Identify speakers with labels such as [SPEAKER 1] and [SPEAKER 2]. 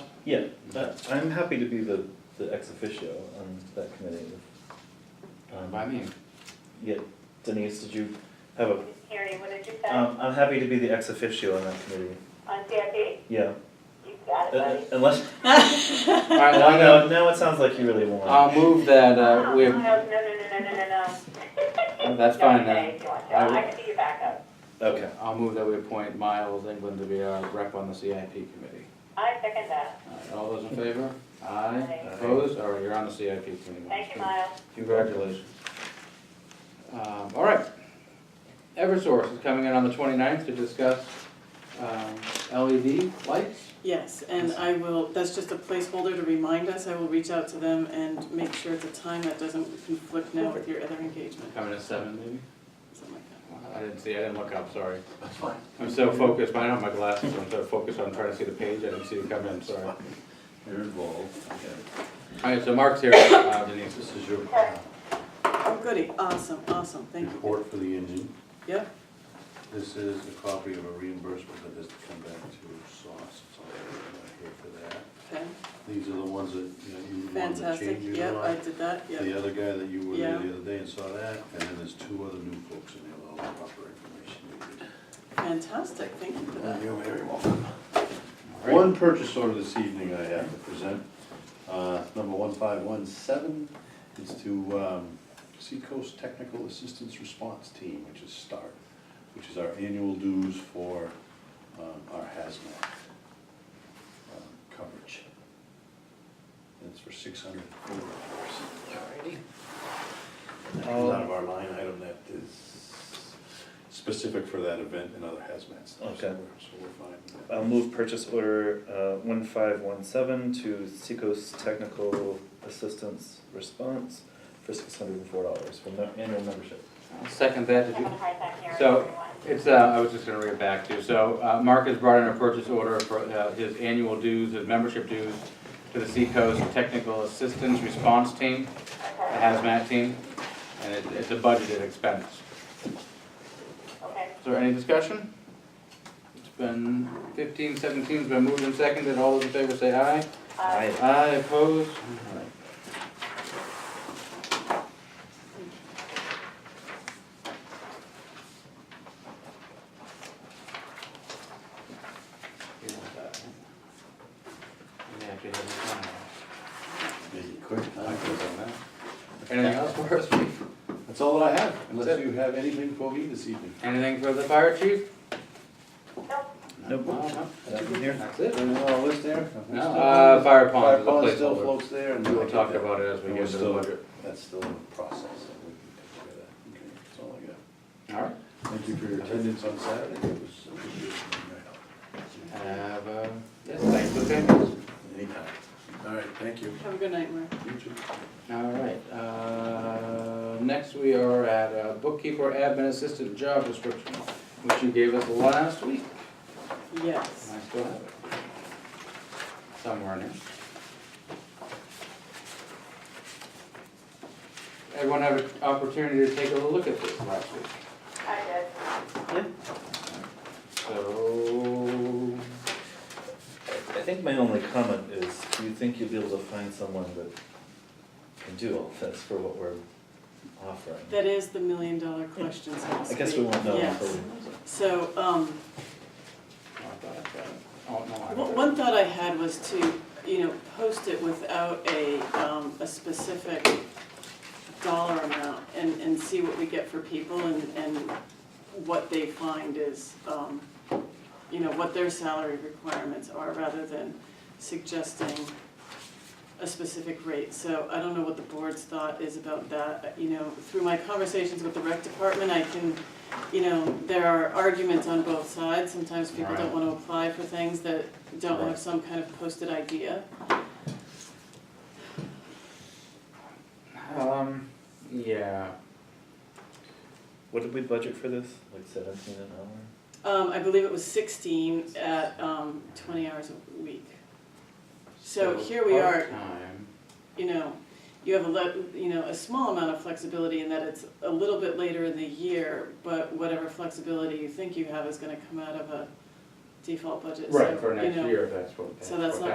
[SPEAKER 1] Yeah, that- I'm happy to be the, the ex officio on that committee. Um,
[SPEAKER 2] Fine By me,
[SPEAKER 1] Yeah, Denise, did you have a,
[SPEAKER 3] Didn't hear you, what did you say?
[SPEAKER 1] um, I'm happy to be the ex officio on that committee,
[SPEAKER 2] Uh,
[SPEAKER 3] On CIP?
[SPEAKER 1] yeah.
[SPEAKER 3] You got it, buddy.
[SPEAKER 1] Uh, Unless,
[SPEAKER 2] all right, well,
[SPEAKER 1] I
[SPEAKER 2] I know,
[SPEAKER 1] know, now it sounds like you really want
[SPEAKER 2] I'll move that, uh,
[SPEAKER 3] Oh,
[SPEAKER 2] we,
[SPEAKER 3] No, no, no, no, no, no, no.
[SPEAKER 2] Oh, that's fine
[SPEAKER 3] Don't say
[SPEAKER 2] then.
[SPEAKER 3] if you want to.
[SPEAKER 2] I will-
[SPEAKER 3] I can be your backup.
[SPEAKER 1] it. Okay,
[SPEAKER 2] I'll move that we appoint Miles England to be our rep on the CIP committee.
[SPEAKER 3] I second that.
[SPEAKER 2] All right, All those in favor? Aye.
[SPEAKER 3] Aye.
[SPEAKER 2] Opposed? All right, you're on the CIP committee. Miles.
[SPEAKER 3] Thank you, Miles.
[SPEAKER 2] Congratulations. Um, all right. Eversource is coming in on the 29th to discuss, um, LED lights.
[SPEAKER 4] Yes, and I will, that's just a placeholder to remind us, I will reach out to them and make sure at the time that doesn't conflict now with your other engagement,
[SPEAKER 2] Coming at seven maybe?
[SPEAKER 4] something like that.
[SPEAKER 2] I didn't see, I didn't look up, sorry. That's fine. I'm so focused, I don't have my glasses, I'm so focused on trying to see the page, I didn't see you come in, sorry. All
[SPEAKER 1] you're involved,
[SPEAKER 2] right, so Mark's here, Uh, Denise, this is your uh,
[SPEAKER 4] Oh, goody, awesome, awesome, thank you.
[SPEAKER 5] report for the engine.
[SPEAKER 4] Yep,
[SPEAKER 5] This is a copy of a reimbursement that has to come back to SOS, so I'm not here for that.
[SPEAKER 4] okay,
[SPEAKER 5] These are the ones that, you know, you wanted to
[SPEAKER 4] fantastic,
[SPEAKER 5] change your
[SPEAKER 4] yep, I
[SPEAKER 5] mind.
[SPEAKER 4] did that, yep,
[SPEAKER 5] The other guy that you were there
[SPEAKER 4] Yeah.
[SPEAKER 5] the other day and saw that, and then there's two other new folks in there, with all the proper information.
[SPEAKER 4] fantastic, thank you for that.
[SPEAKER 5] Uh, You're very welcome.
[SPEAKER 2] right.
[SPEAKER 5] One purchase order this evening I have to present, uh, number one five one seven, is to, um, Seacoast Technical Assistance Response Team, which is START, which is our annual dues for, um, our hazmat, um, coverage. And it's for six hundred and forty dollars. Alrighty. That comes out of our line item that is specific for that event and other hazmat stuff, so
[SPEAKER 1] Okay.
[SPEAKER 5] we're, so we're fine. with that.
[SPEAKER 1] I'll move purchase order, uh, one five one seven to Seacoast Technical Assistance Response for six hundred and four dollars for no- annual membership.
[SPEAKER 2] I'll second that,
[SPEAKER 3] I'm
[SPEAKER 2] did you?
[SPEAKER 3] having a hard time hearing
[SPEAKER 2] So-
[SPEAKER 3] everyone.
[SPEAKER 2] It's, uh, I was just gonna read it back to you. So, uh, Mark has brought in a purchase order for, uh, his annual dues, his membership dues to the Seacoast Technical Assistance Response Team, the
[SPEAKER 3] Okay,
[SPEAKER 2] hazmat team, and it, it's a budgeted expense.
[SPEAKER 3] okay.
[SPEAKER 2] Is there any discussion? It's been fifteen, seventeen's been moved and seconded, all those in favor say aye.
[SPEAKER 3] Uh,
[SPEAKER 2] Aye, opposed?
[SPEAKER 5] Make it quick, huh?
[SPEAKER 2] Anything else for us?
[SPEAKER 5] That's all that I have, unless
[SPEAKER 2] That's
[SPEAKER 5] you have anything for me this evening.
[SPEAKER 2] Anything for the fire chief?
[SPEAKER 3] Nope.
[SPEAKER 1] Nope.
[SPEAKER 2] No, no,
[SPEAKER 1] Nothing here?
[SPEAKER 2] That's it.
[SPEAKER 5] Anything on the list there? Nothing
[SPEAKER 2] No,
[SPEAKER 5] still?
[SPEAKER 2] uh, fire pond
[SPEAKER 5] Fire
[SPEAKER 2] is a
[SPEAKER 5] pond still
[SPEAKER 2] placeholder.
[SPEAKER 5] floats there and.
[SPEAKER 2] We'll talk about it as we
[SPEAKER 5] And
[SPEAKER 2] get
[SPEAKER 5] we're
[SPEAKER 2] to the
[SPEAKER 5] still-
[SPEAKER 2] budget.
[SPEAKER 5] That's still in process, so we can take care of that. Okay, That's all I got.
[SPEAKER 2] All right.
[SPEAKER 5] Thank you for your attendance on Saturday, it was. appreciated.
[SPEAKER 2] Have, uh, yes, thanks for the papers.
[SPEAKER 5] Anytime. All right, thank you.
[SPEAKER 4] Have a good night, Mark.
[SPEAKER 5] You too.
[SPEAKER 2] All right, uh, next we are at uh, bookkeeper admin assistant job description, which you gave us last week.
[SPEAKER 4] Yes,
[SPEAKER 2] And I still have it. Somewhere in here. Everyone have an opportunity to take a look at this last week.
[SPEAKER 3] I did.
[SPEAKER 2] So,
[SPEAKER 1] I I think my only comment is, do you think you'll be able to find someone that can do all this for what we're offering?
[SPEAKER 4] that is the million dollar question, so to
[SPEAKER 1] I guess we
[SPEAKER 4] speak.
[SPEAKER 1] won't know
[SPEAKER 4] Yes.
[SPEAKER 1] until we.
[SPEAKER 4] So, um,
[SPEAKER 2] I thought I got it. Oh, no, I
[SPEAKER 4] One
[SPEAKER 2] got it.
[SPEAKER 4] one thought I had was to, you know, post it without a, um, a specific dollar amount and, and see what we get for people and, and what they find is, um, you know, what their salary requirements are rather than suggesting a specific rate. So I don't know what the board's thought is about that, you know, through my conversations with the rec department, I can, you know, there are arguments on both sides. Sometimes people don't
[SPEAKER 2] Right.
[SPEAKER 4] wanna apply for things that don't
[SPEAKER 2] Right.
[SPEAKER 4] have some kind of posted idea.
[SPEAKER 2] Um, yeah.
[SPEAKER 1] What did we budget for this? Like seventeen an hour?
[SPEAKER 4] Um, I believe it was sixteen at, um, twenty hours a week. So here we are.
[SPEAKER 2] Part-time.
[SPEAKER 4] You know, you have a le- you know, a small amount of flexibility in that it's a little bit later in the year, but whatever flexibility you think you have is gonna come out of a default budget. So,
[SPEAKER 2] Right, for
[SPEAKER 4] you
[SPEAKER 2] next
[SPEAKER 4] know,
[SPEAKER 2] year, that's what.
[SPEAKER 4] So that's
[SPEAKER 2] what
[SPEAKER 4] not